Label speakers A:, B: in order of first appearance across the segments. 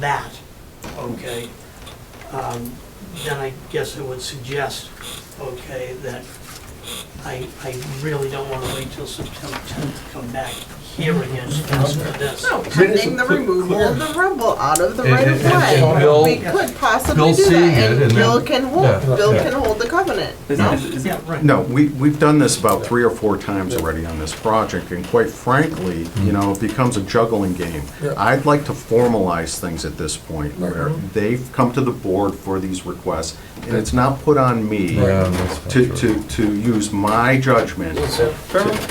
A: that, okay, um, then I guess I would suggest, okay, that I, I really don't want to wait till September 10th to come back here again to ask for this.
B: No, pending the removal of the rubble out of the
C: And-
B: right of
C: and- and Bill-
B: way. We could possibly
C: Bill
B: do
C: seeing it
B: that, and
C: and
B: Bill
C: then-
B: can
C: Yeah.
B: hold, Bill
C: Yeah.
B: can hold the covenant.
D: No.
E: Is- is-
A: Yeah, right.
E: No, we, we've done this about three or four times already on this project, and quite frankly, you know, it becomes a juggling game.
C: Mm-hmm. Yeah.
E: I'd like to formalize things at this point,
C: Right. Mm-hmm.
E: where they've come to the board for these requests, and it's not put on me
C: Yeah, that's
E: to,
C: not true.
E: to, to use my judgment to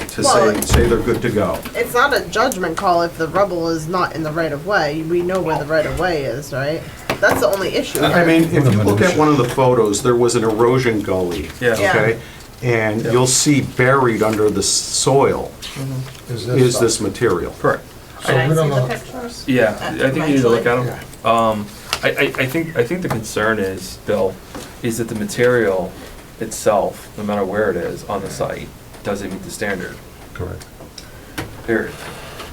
E: to say,
B: Well-
E: say they're good to go.
B: It's not a judgment call if the rubble is not in the right of way. We know where the right of way is, right? That's the only issue.
E: I
B: here.
E: mean, if you look
C: minute.
E: at one of the photos, there was an erosion gully, okay? And you'll see buried under the soil
C: Mm-hmm.
E: is this material. Correct.
C: So we don't know.
B: pictures?
D: Yeah, I think you need to look at them. Um, I, I, I think, I think the concern is, Bill, is that the material itself, no matter where it is on the site, doesn't meet the standard,
C: Correct.
D: period.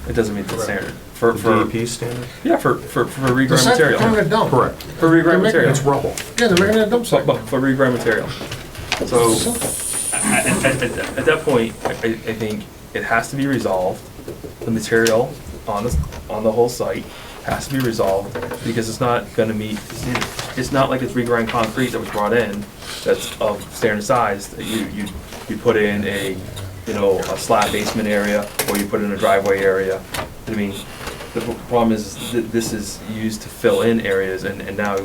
D: It doesn't meet the standard for,
E: The
D: for,
E: DEP standard?
D: yeah, for, for, for
C: The
D: regrind
C: site they're tearing
D: material.
C: it down.
E: Correct.
D: For regrind material.
E: It's rubble.
C: Yeah, they're making it a dump site.
D: But for regrind material. So,
C: Simple.
D: at, at, at at that point, I, I I think it has to be resolved. The material on the, on the whole site has to be resolved because it's not gonna meet, it's not like it's regrind concrete that was brought in that's of standard size, that you, you, you put in a, you know, a slab basement area or you put in a driveway area. I mean, the pro- problem is that this is used to fill in areas and, and now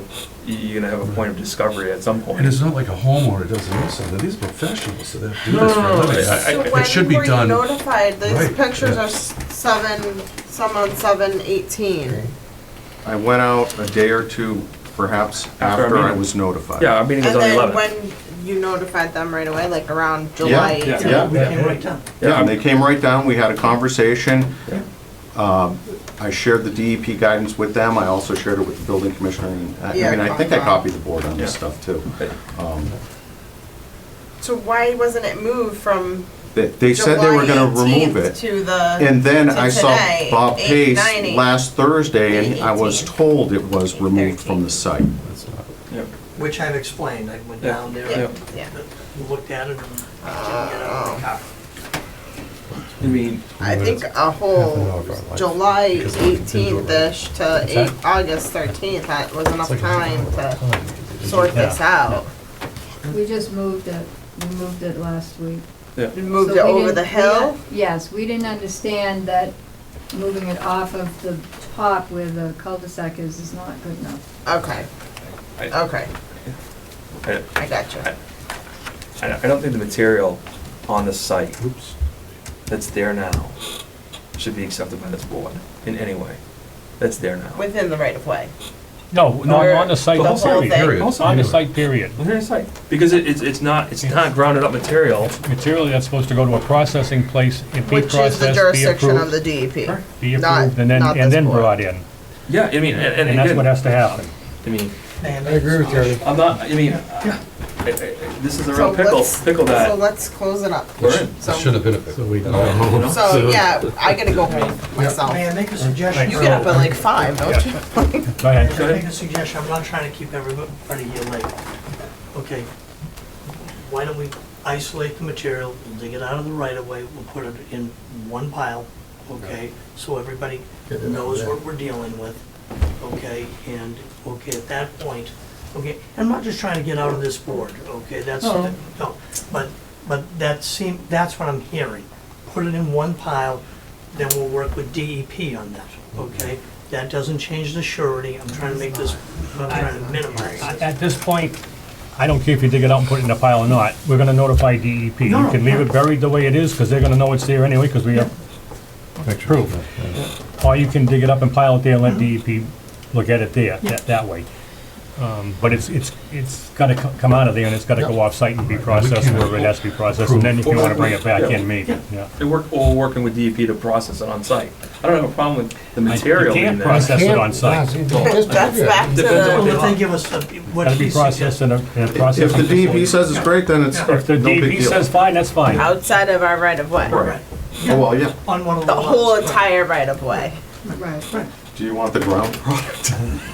D: you're gonna have a point of discovery at some point.
F: And it's not like a homeowner doesn't know something, these are professionals that have to do
D: No,
F: this for a
D: no, no,
F: living.
D: I- I-
B: So
D: it
F: should
B: when
F: be
B: were you
F: done-
B: notified? These
F: Right,
B: pictures
F: yeah.
B: are s- seven, some on seven eighteen.
E: I went out a day or two, perhaps,
D: After our
E: after I
D: meeting.
E: was notified.
D: Yeah, our meeting is
B: And
D: on the
B: then
D: eleventh.
B: when you notified them right away, like around July
E: yeah,
B: eighteenth?
E: yeah.
A: We came right down.
E: Yeah, and they came right down, we had a conversation. Um, I shared the DEP guidance with them, I also shared it with the building commissioner, and I I
B: Yeah,
E: mean, I think I
B: uh-huh.
E: copied the board on this
D: Yeah.
E: stuff, too. Um,
B: So why wasn't it moved from
E: They they said they were gonna
B: July
E: remove
B: 18th
E: it,
B: To the.
E: and then
B: to
E: I saw
B: today,
E: Bob
B: eight,
E: Pace
B: nine, eight.
E: last Thursday, and
B: Eight,
E: I was
B: 18th.
E: told it was removed from the site.
F: That's not-
D: Yep.
A: Which I've explained, I went
D: Yeah.
A: down there,
B: Yeah,
A: and
B: yeah.
A: looked at it, and didn't get out of the car.
D: I mean,
B: I
F: Yeah,
B: think
F: it's
B: a
F: half an hour
B: whole
F: of our life
B: July
F: because we didn't do it right.
B: eighteenth-ish to
F: What's
B: eight,
F: that?
B: August thirteenth, that was enough
F: It's like a
B: time
F: half hour
B: to
F: time you could
B: sort this out.
G: We just moved it, we moved it last week.
D: yeah.
B: We Moved
G: So
B: it
G: we
B: over
G: didn't-
B: the
G: we
B: hill,
G: didn't- Yes, we didn't understand that moving it off of the top where the cul-de-sac is is not good enough.
B: okay,
D: I,
B: okay,
D: I,
B: I got you.
D: I I don't think the material on the site
F: Oops.
D: that's there now should be accepted by this board in any way. That's there now.
B: Within the right of way.
H: No, no,
B: Or
H: on the site,
B: the whole
H: period.
B: thing.
F: Period.
H: On the
F: Anyway.
H: site, period.
D: On their site, because it, it's, it's not, it's not grounded up material.
H: Material that's supposed to go to a processing place, it be
B: Which is
H: processed, be approved.
B: the jurisdiction of the DEP.
H: Be
B: not-
H: approved, and then,
B: not
H: and
B: this
H: then
B: board.
H: brought in.
D: Yeah, I mean, and,
H: And
D: and
H: that's what
D: again,
H: has to happen.
D: I mean,
A: Man,
C: I agree with you, Ernie.
D: I'm not, I mean, I- I- I- this is
B: So
D: a real pickle,
B: let's-
D: pickle
B: So
D: that
B: let's close it up.
D: we're in.
B: So-
F: It should have been a pickle.
D: You know?
B: So, yeah, I gotta go home myself.
A: May I make a suggestion?
B: You get up at like five, don't you?
H: Go ahead.
A: Can I make a suggestion? I'm not trying to keep everybody here late. Okay, why don't we isolate the material, we'll dig it out of the right of way, we'll put it in one pile, okay? So everybody
C: Get it out
A: knows
C: there.
A: what we're dealing with, okay? And, okay, at that point, okay, I'm not just trying to get out of this board, okay? That's,
D: No.
A: no, but, but that seem, that's what I'm hearing. Put it in one pile, then we'll work with DEP on that, okay? That doesn't change the surety, I'm trying to make this, I'm trying to minimize
H: At
A: it.
H: Uh, at this point, I don't care if you dig it out and put it in a pile or not, we're gonna notify DEP. You
A: No, no,
H: can leave it buried the way it is, because they're gonna know it's there anyway, because we have proof. Or you can dig it up and pile it there and let DEP look at it there, that, that way. Um, But it's, it's, it's gotta co- come out of there and it's gotta go off-site and be processed
F: can't
H: wherever it has to be processed, and then if you wanna bring it back in, maybe, yeah.
D: They work, all working with DEP to process it on site. I don't have a problem with the material
H: can't
D: being there.
H: process- That's it on site.
B: That's back to
D: Depends on
B: the,
D: what
A: Well, if they give us a- what
H: Gotta
A: he
H: be
A: suggests.
H: processed in a, in a processing
E: If the DEP
H: facility.
E: says it's great, then it's, no
H: If the
E: big
H: DEP
E: deal.
H: says fine, that's fine.
B: outside of our right of way.
D: Right.
A: Right,
E: Oh, well, yeah.
A: on one of the
B: The
A: lots,
B: whole
A: right.
B: entire right of way.
G: Right.
A: Right,
F: Do you want
E: The ground product.